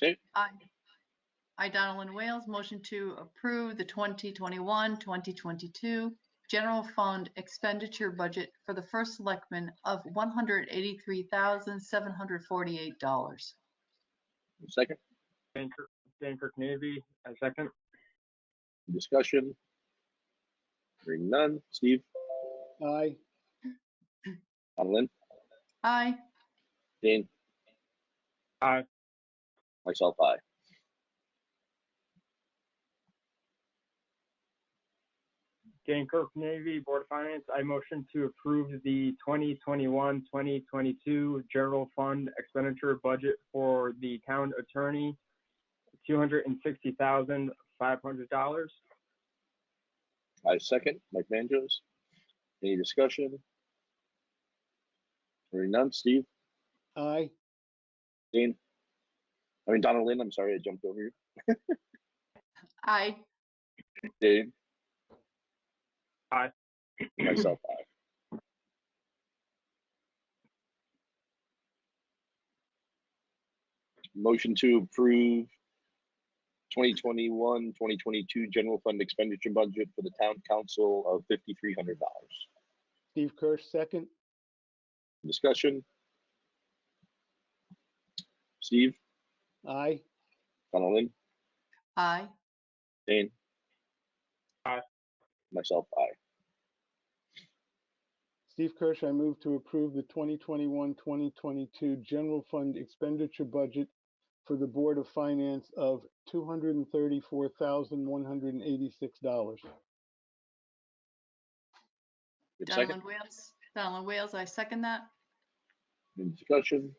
Okay, Aye. I, Donaldin Wales, motion to approve the 2021, 2022 general fund expenditure budget for the first selectman of $183,748. second, Dankirk, Dankirk Navy, I second. discussion. Hearing none. Steve, aye, Adeline, Aye. Jane, Aye. myself, aye. Dankirk Navy Board of Finance, I motion to approve the 2021, 2022 general fund expenditure budget for the town attorney, $260,500. I second, Mike Manjos. Any discussion? Hearing none. Steve, aye, Jane, I mean, Donaldin, I'm sorry, I jumped over you. Aye. Dave? Aye. Myself, aye. Motion to approve 2021, 2022 general fund expenditure budget for the town council of $5,300. Steve Kirsch, second, Discussion? Steve, aye, Donaldin, Aye. Dane? Aye. Myself, aye. Steve Kirsch, I move to approve the 2021, 2022 general fund expenditure budget for the Board of Finance of $234,186. Good second, Donaldin Wales, Donaldin Wales, I second that. any discussion?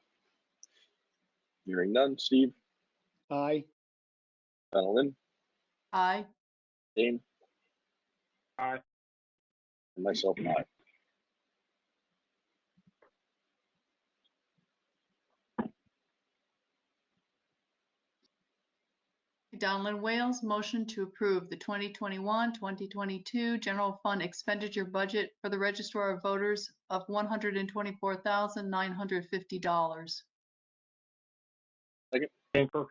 Hearing none. Steve, Aye, Donaldin? Aye. Dane? Aye. And myself, aye. Donaldin Wales, motion to approve the 2021, 2022 general fund expenditure budget for the registrar of voters of $124,950. Dankirk,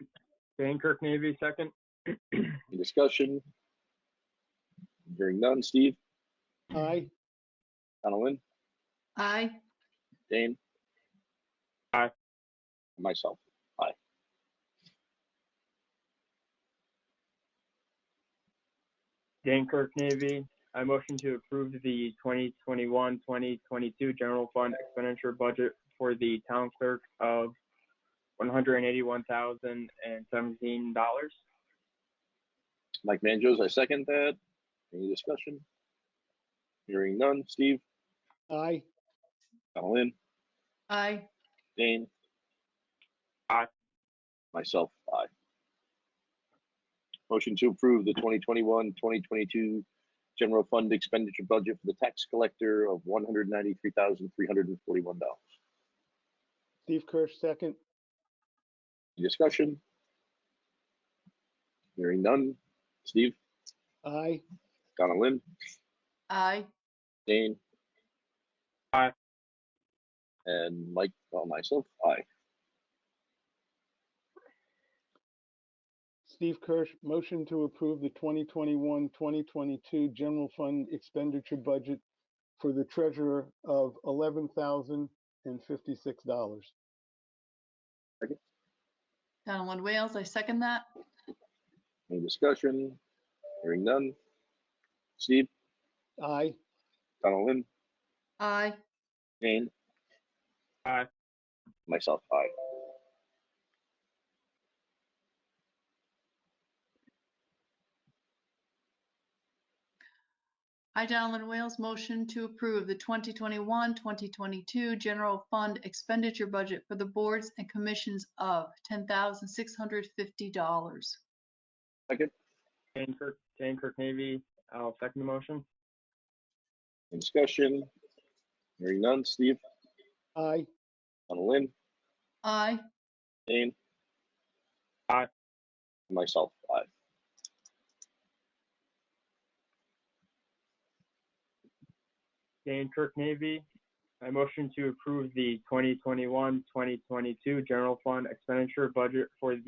Dankirk Navy, second. Any discussion? Hearing none. Steve, aye, Donaldin, Aye. Dane? Aye. And myself. Dankirk Navy, I motion to approve the 2021, 2022 general fund expenditure budget for the town clerk of $181,017. Mike Manjos, I second that. Any discussion? Hearing none. Steve, aye, Donaldin, Aye. Dane? Aye. Myself, aye. Motion to approve the 2021, 2022 general fund expenditure budget for the tax collector of $193,341. Steve Kirsch, second, Discussion? Hearing none. Steve, aye, Donaldin, Aye. Dane? Aye. And Mike, well, myself, aye. Steve Kirsch, motion to approve the 2021, 2022 general fund expenditure budget for the treasurer of $11,056. Donaldin Wales, I second that. Any discussion? Hearing none. Steve, Aye, Donaldin, Aye. Dane? Aye. Myself, aye. I, Donaldin Wales, motion to approve the 2021, 2022 general fund expenditure budget for the boards and commissions of $10,650. Dankirk, Dankirk Navy, I'll second the motion. Any Discussion? Hearing none. Steve, aye, Donaldin, Aye. Dane? Aye. Myself, aye. Dankirk Navy, I motion to approve the 2021, 2022 general fund expenditure budget for